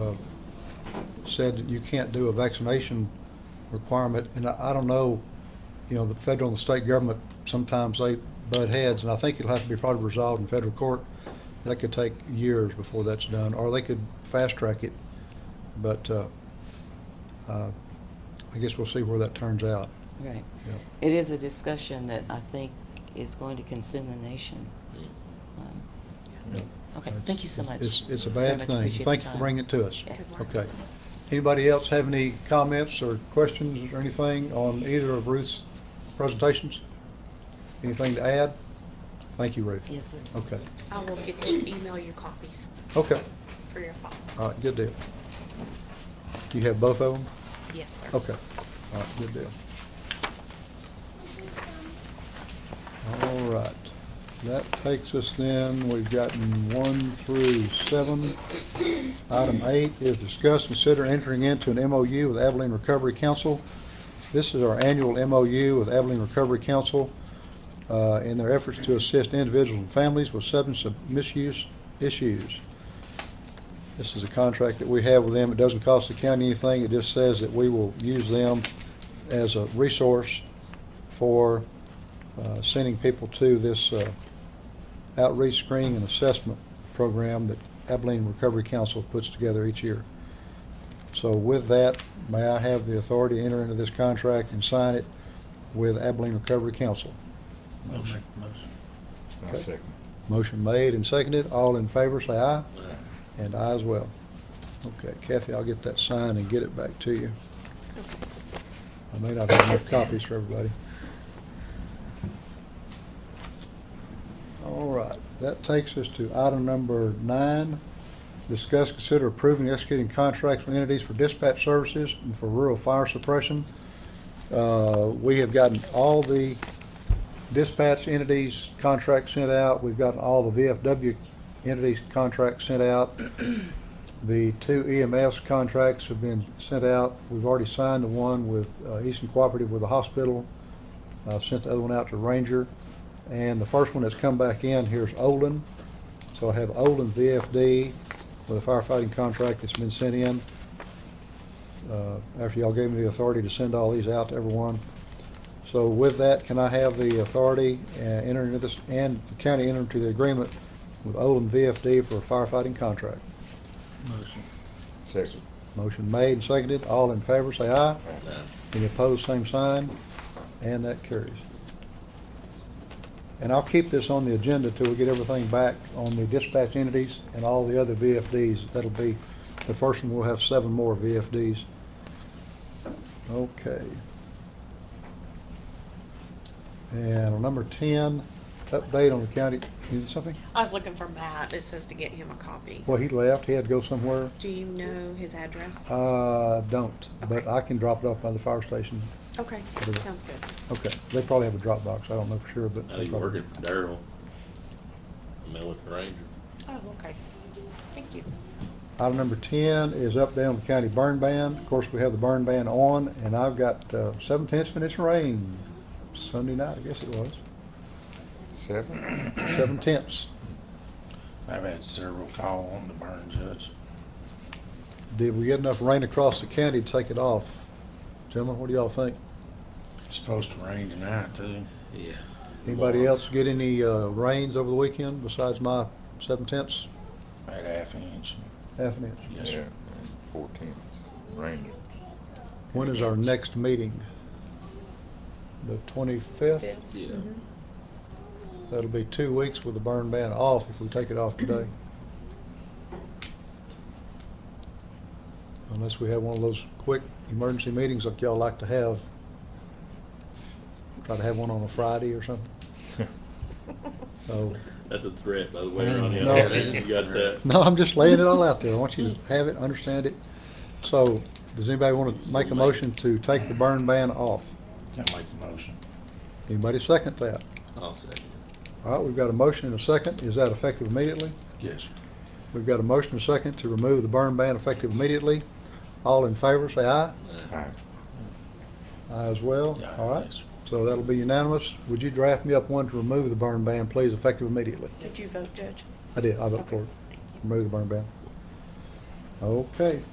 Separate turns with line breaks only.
uh, said that you can't do a vaccination requirement, and I, I don't know, you know, the federal and the state government, sometimes they butt heads, and I think it'll have to be probably resolved in federal court. That could take years before that's done, or they could fast track it, but, uh, uh, I guess we'll see where that turns out.
Right.
Yeah.
It is a discussion that I think is going to consume the nation. Um, Okay,
It's-
thank you so much.
It's, it's a
Very
bad
much
thing.
appreciate the
Thank you for
time.
bringing it to us.
Yes.
Okay. Anybody else have any comments or questions or anything on either of Ruth's presentations? Anything to add? Thank you, Ruth.
Yes, sir.
Okay,
I will get you, email you copies
okay,
for your file.
all right, good deal. Do you have both of them?
Yes, sir.
Okay, all right, good deal. All right, that takes us then, we've gotten one through seven. Item eight is discuss, consider entering into an MOU with Abilene Recovery Council. This is our annual MOU with Abilene Recovery Council uh, in their efforts to assist individuals and families with substance misuse issues. This is a contract that we have with them. It doesn't cost the county anything. It just says that we will use them as a resource for uh, sending people to this uh, outreach screening and assessment program that Abilene Recovery Council puts together each year. So with that, may I have the authority to enter into this contract and sign it with Abilene Recovery Council?
Motion.
Okay. Motion made and seconded. All in favor, say aye. And I as well. Okay, Kathy, I'll get that signed and get it back to you. I may not have enough copies for everybody. All right, that takes us to item number nine. Discuss, consider approving, and executing contracts with entities for dispatch services and for rural fire suppression. Uh, we have gotten all the dispatch entities contracts sent out. We've gotten all the VFW entities contracts sent out. The two EMS contracts have been sent out. We've already signed the one with uh, Eastern Cooperative with the hospital. Uh, Sent the other one out to Ranger. And the first one that's come back in here is Olin. So I have Olin VFD with a firefighting contract that's been sent in. Uh, After y'all gave me the authority to send all these out to everyone. So with that, can I have the authority uh, enter into this, and the county enter into the agreement with Olin VFD for a firefighting contract?
Motion.
Second.
Motion made and seconded. All in favor, say aye. Any opposed, same sign. And that carries. And I'll keep this on the agenda till we get everything back on the dispatch entities and all the other VFDs. That'll be, the first one, we'll have seven more VFDs. Okay. And on number ten, update on the county, you did something?
I was looking for Matt. It says to get him a copy.
Well, he left. He had to go somewhere.
Do you know his address?
I don't, but
Okay.
I can drop it off by the fire station.
Okay,
do that.
sounds good.
Okay, they probably have a drop box, I don't know for sure, but.
I think working for Daryl, I mean, with the Ranger.
Oh, okay. Thank you.
Item number ten is up down the county burn ban. Of course, we have the burn ban on, and I've got uh, seven tenths of an inch of rain Sunday night, I guess it was,
Seven?
seven tenths.
I've had several call on the burn judge.
Did we get enough rain across the county to take it off? Gentlemen, what do y'all think?
It's supposed to rain tonight too.
Yeah.
Anybody else get any uh, rains over the weekend besides my seven tenths,
About half inch.
half an inch?
Yes, sir.
Fourteen. Ranger.
When is our next meeting? The twenty-fifth?
Yeah.
Mm-hmm.
That'll be two weeks with the burn ban off if we take it off today. Unless we have one of those quick emergency meetings like y'all like to have. Try to have one on a Friday or something. So,
That's a threat, by the way, Ronnie. I
No.
think You got that.
no, I'm just laying it all out there. I want you to have it, understand it. So, does anybody want to make a motion to take the burn ban off?
I'll make the motion.
Anybody second that?
I'll second.
All right, we've got a motion and a second. Is that effective immediately?
Yes, sir.
We've got a motion and a second to remove the burn ban effective immediately. All in favor, say aye.
Aye.
Aye as well.
Yeah,
All right,
yes, sir.
so that'll be unanimous. Would you draft me up one to remove the burn ban, please, effective immediately?
Did you vote, Judge?
I did, I vote for it.
Thank you.
Remove the burn ban. Okay,